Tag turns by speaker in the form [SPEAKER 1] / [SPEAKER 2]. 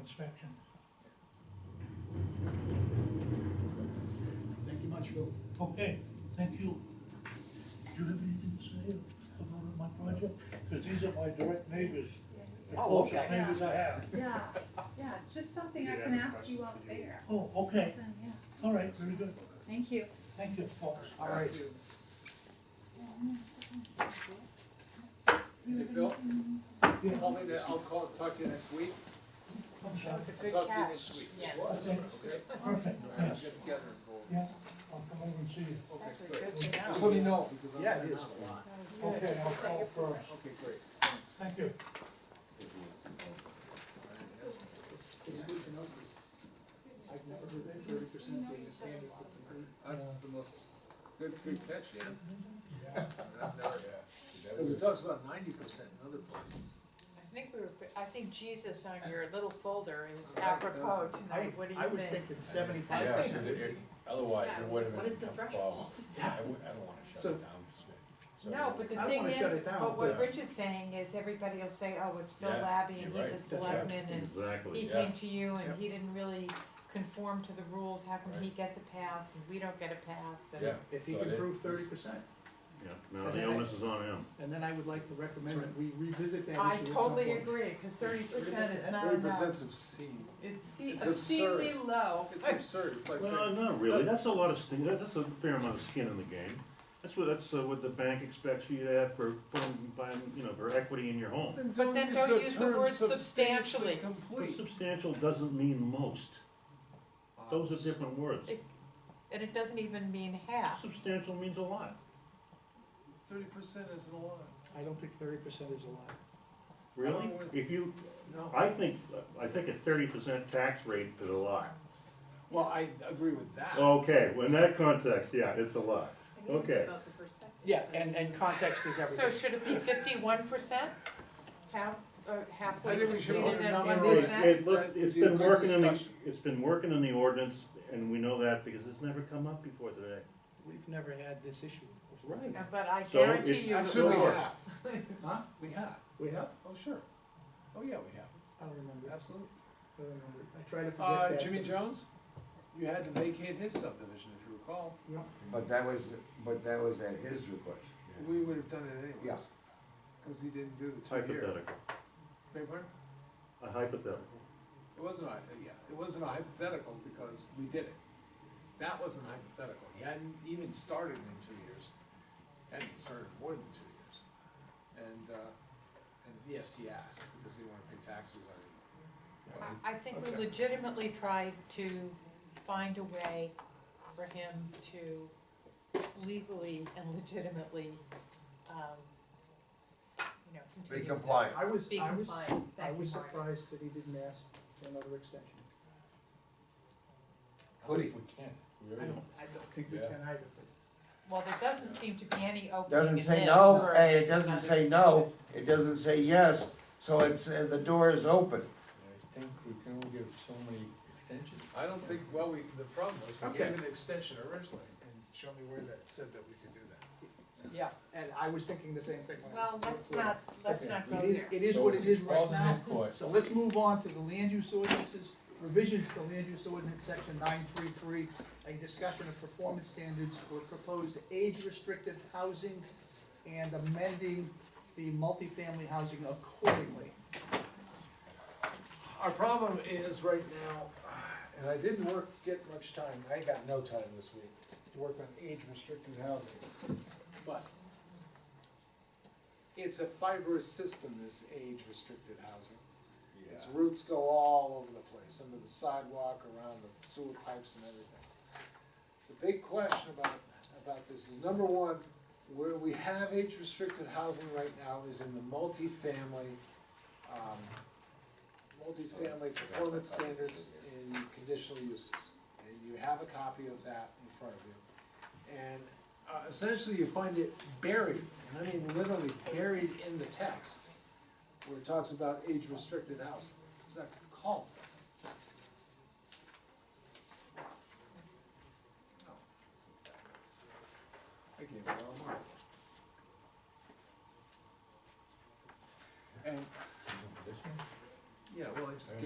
[SPEAKER 1] inspection.
[SPEAKER 2] Thank you much, Phil.
[SPEAKER 1] Okay, thank you. Do you have anything to say about my project? Because these are my direct neighbors, the
[SPEAKER 2] Oh,
[SPEAKER 1] closest
[SPEAKER 2] okay.
[SPEAKER 1] neighbors I have.
[SPEAKER 3] Yeah, yeah, just something I can ask you out there.
[SPEAKER 1] Oh, okay,
[SPEAKER 3] Then, yeah,
[SPEAKER 1] all right, very good.
[SPEAKER 3] Thank you.
[SPEAKER 1] Thank you, folks.
[SPEAKER 2] All right.
[SPEAKER 4] Hey, Phil,
[SPEAKER 1] Yeah,
[SPEAKER 4] call me, that- I'll call, talk to you next week.
[SPEAKER 1] I'm
[SPEAKER 5] That
[SPEAKER 1] sorry.
[SPEAKER 5] was a good
[SPEAKER 4] Talk to you
[SPEAKER 5] catch.
[SPEAKER 4] next week.
[SPEAKER 5] Yes.
[SPEAKER 1] Okay,
[SPEAKER 4] Okay?
[SPEAKER 1] Perfect, yes,
[SPEAKER 4] Get together and go. over.
[SPEAKER 1] yes, I'll come over and see you.
[SPEAKER 4] Okay,
[SPEAKER 5] That's
[SPEAKER 4] good.
[SPEAKER 5] good to
[SPEAKER 4] Just
[SPEAKER 5] know.
[SPEAKER 4] let me know, because I'm.
[SPEAKER 2] Yeah, it
[SPEAKER 4] I'm
[SPEAKER 2] is.
[SPEAKER 4] out a lot.
[SPEAKER 5] That was good.
[SPEAKER 1] Okay, I'll call first.
[SPEAKER 4] Okay, great, thanks.
[SPEAKER 1] Thank you.
[SPEAKER 2] It's, it's good to know this. I've never heard that thirty percent being a standard for complete.
[SPEAKER 4] That's the most, good, good catch, yeah. Because it
[SPEAKER 6] That
[SPEAKER 4] talks about ninety percent in other places.
[SPEAKER 5] I think we were, I think Jesus on your little folder is
[SPEAKER 4] Right, that was-
[SPEAKER 5] apropos tonight, what do
[SPEAKER 2] I
[SPEAKER 5] you
[SPEAKER 2] was
[SPEAKER 5] think?
[SPEAKER 2] thinking
[SPEAKER 6] was-
[SPEAKER 2] seventy-five
[SPEAKER 6] yeah,
[SPEAKER 2] percent.
[SPEAKER 6] it- it- Otherwise, it would have been.
[SPEAKER 7] What is the
[SPEAKER 6] a problem.
[SPEAKER 7] threshold?
[SPEAKER 6] I wouldn't, I don't wanna shut
[SPEAKER 2] So-
[SPEAKER 6] it down. so-
[SPEAKER 5] No, but the
[SPEAKER 2] I don't
[SPEAKER 5] thing
[SPEAKER 2] wanna shut
[SPEAKER 5] is,
[SPEAKER 2] it down,
[SPEAKER 5] but what
[SPEAKER 6] but-
[SPEAKER 5] Rich is saying is everybody will say, oh, it's Phil
[SPEAKER 6] Yeah,
[SPEAKER 5] Labby and
[SPEAKER 6] you're
[SPEAKER 5] he's a
[SPEAKER 6] right.
[SPEAKER 5] selectman and he
[SPEAKER 6] Exactly,
[SPEAKER 5] came to you and
[SPEAKER 6] Yep.
[SPEAKER 5] he didn't really conform to the rules, how come he
[SPEAKER 6] Right.
[SPEAKER 5] gets a pass and we don't get a pass and.
[SPEAKER 6] yeah.
[SPEAKER 2] If he
[SPEAKER 6] So
[SPEAKER 2] can
[SPEAKER 6] it-
[SPEAKER 2] prove thirty percent,
[SPEAKER 8] Yeah, no,
[SPEAKER 2] And
[SPEAKER 8] the
[SPEAKER 2] then I-
[SPEAKER 8] onus is on him.
[SPEAKER 2] and then I would like to recommend that we revisit that
[SPEAKER 5] I
[SPEAKER 2] issue at some point.
[SPEAKER 5] totally agree, cause thirty percent is not
[SPEAKER 4] Thirty
[SPEAKER 5] enough,
[SPEAKER 4] percent's obscene.
[SPEAKER 5] it's se-
[SPEAKER 4] It's
[SPEAKER 5] obscenely low.
[SPEAKER 4] It's absurd, it's like
[SPEAKER 8] Well,
[SPEAKER 4] saying,
[SPEAKER 8] not really, that's a lot of, skin- that- that's a fair amount of skin in the game. That's what, that's uh, what the bank expects you to have for putting, buying, you know, for equity in your home.
[SPEAKER 5] But then don't use the
[SPEAKER 4] term
[SPEAKER 5] word
[SPEAKER 4] substantially
[SPEAKER 5] substantially.
[SPEAKER 8] But
[SPEAKER 4] complete.
[SPEAKER 8] substantial doesn't mean most, those are different words.
[SPEAKER 5] It- And it doesn't even mean half.
[SPEAKER 8] Substantial means a lot,
[SPEAKER 4] Thirty percent isn't a lot.
[SPEAKER 2] I don't think thirty percent is a lot.
[SPEAKER 8] really? If you,
[SPEAKER 4] No.
[SPEAKER 8] I think, I think a thirty percent tax rate is a lot.
[SPEAKER 4] Well, I agree with that.
[SPEAKER 8] Okay, well, in that context, yeah, it's a lot. Okay.
[SPEAKER 7] about the perspective.
[SPEAKER 2] Yeah, and, and context is
[SPEAKER 5] So
[SPEAKER 2] everything.
[SPEAKER 5] should it be fifty-one percent? Half, or halfway
[SPEAKER 4] I think we should
[SPEAKER 5] completed
[SPEAKER 4] open
[SPEAKER 5] at
[SPEAKER 4] up
[SPEAKER 5] one
[SPEAKER 4] our-
[SPEAKER 8] It,
[SPEAKER 5] percent?
[SPEAKER 8] it looked,
[SPEAKER 4] That would
[SPEAKER 8] it's
[SPEAKER 4] be a
[SPEAKER 8] been
[SPEAKER 4] good
[SPEAKER 8] working in the,
[SPEAKER 4] discussion.
[SPEAKER 8] it's been working in the ordinance, and we know that because it's never come up before today.
[SPEAKER 2] We've never had this issue before.
[SPEAKER 8] Right.
[SPEAKER 5] Uh, But I
[SPEAKER 8] So
[SPEAKER 5] guarantee
[SPEAKER 8] it's-
[SPEAKER 5] you. it
[SPEAKER 4] Actually, we
[SPEAKER 5] will.
[SPEAKER 4] have. Huh? We have.
[SPEAKER 2] We have?
[SPEAKER 4] Oh, sure. Oh, yeah, we have.
[SPEAKER 2] I don't remember. I
[SPEAKER 4] Absolutely.
[SPEAKER 2] don't remember. I try to forget
[SPEAKER 4] Uh,
[SPEAKER 2] that.
[SPEAKER 4] Jimmy Jones, you had to vacate his subdivision, if you recall.
[SPEAKER 9] But that was, but that was at his request.
[SPEAKER 4] We would have done it
[SPEAKER 9] Yeah.
[SPEAKER 4] anyways. Cause he didn't do the two year.
[SPEAKER 8] Hypothetical,
[SPEAKER 4] Beg pardon?
[SPEAKER 8] a hypothetical.
[SPEAKER 4] It wasn't, a- yeah, it wasn't a hypothetical because we did it. That wasn't hypothetical. He hadn't even started in two years. Hadn't started more than two years. And, uh, and yes, he asked because he wanted to pay taxes on it.
[SPEAKER 5] I I think we
[SPEAKER 4] Okay.
[SPEAKER 5] legitimately tried to find a way for him to legally and legitimately, um, you know,
[SPEAKER 9] Be
[SPEAKER 5] continue. with that.
[SPEAKER 9] compliant.
[SPEAKER 2] I was,
[SPEAKER 5] Be
[SPEAKER 2] I was,
[SPEAKER 5] compliant,
[SPEAKER 2] I
[SPEAKER 5] thank you,
[SPEAKER 2] was
[SPEAKER 5] Mark.
[SPEAKER 2] surprised that he didn't ask for another extension.
[SPEAKER 9] Could he?
[SPEAKER 6] If we can. We
[SPEAKER 2] I
[SPEAKER 6] already-
[SPEAKER 2] don't, I don't think we
[SPEAKER 6] Yeah.
[SPEAKER 2] can either, but
[SPEAKER 5] Well, there doesn't seem to be any opening in
[SPEAKER 9] Doesn't
[SPEAKER 5] this.
[SPEAKER 9] say no,
[SPEAKER 5] for
[SPEAKER 9] hey, it doesn't
[SPEAKER 5] another-
[SPEAKER 9] say no, it doesn't say yes, so it's, uh, the door is open.
[SPEAKER 6] I think we can only give so many extensions.
[SPEAKER 4] I don't think, well, we, the problem was, we
[SPEAKER 2] Okay.
[SPEAKER 4] gave an extension originally, and show me where that said that we could do that.
[SPEAKER 2] Yeah, and I was thinking the same thing. when I-
[SPEAKER 5] Well, let's not, let's
[SPEAKER 6] Okay.
[SPEAKER 5] not go
[SPEAKER 2] It is-
[SPEAKER 5] there.
[SPEAKER 2] it is
[SPEAKER 6] So
[SPEAKER 2] what it is right
[SPEAKER 6] all's in his
[SPEAKER 2] now,
[SPEAKER 6] court.
[SPEAKER 2] so let's move on to the land use ordinances, revisions to land use ordinance section nine three three, a discussion of performance standards for proposed age-restricted housing and amending the multifamily housing accordingly.
[SPEAKER 4] Our problem is right now, and I didn't work, get much time, I got no time this week to work on age restricted housing. But it's a fibrous system, this age restricted housing. Its roots go all over the place, under the sidewalk, around the sewer pipes and everything. The big question about, about this is, number one, where we have age restricted housing right now is in the multifamily, um, multifamily performance standards in conditional uses. And you have a copy of that in front of you. And, uh, essentially you find it buried, and I mean literally buried in the text, where it talks about age restricted housing. Oh,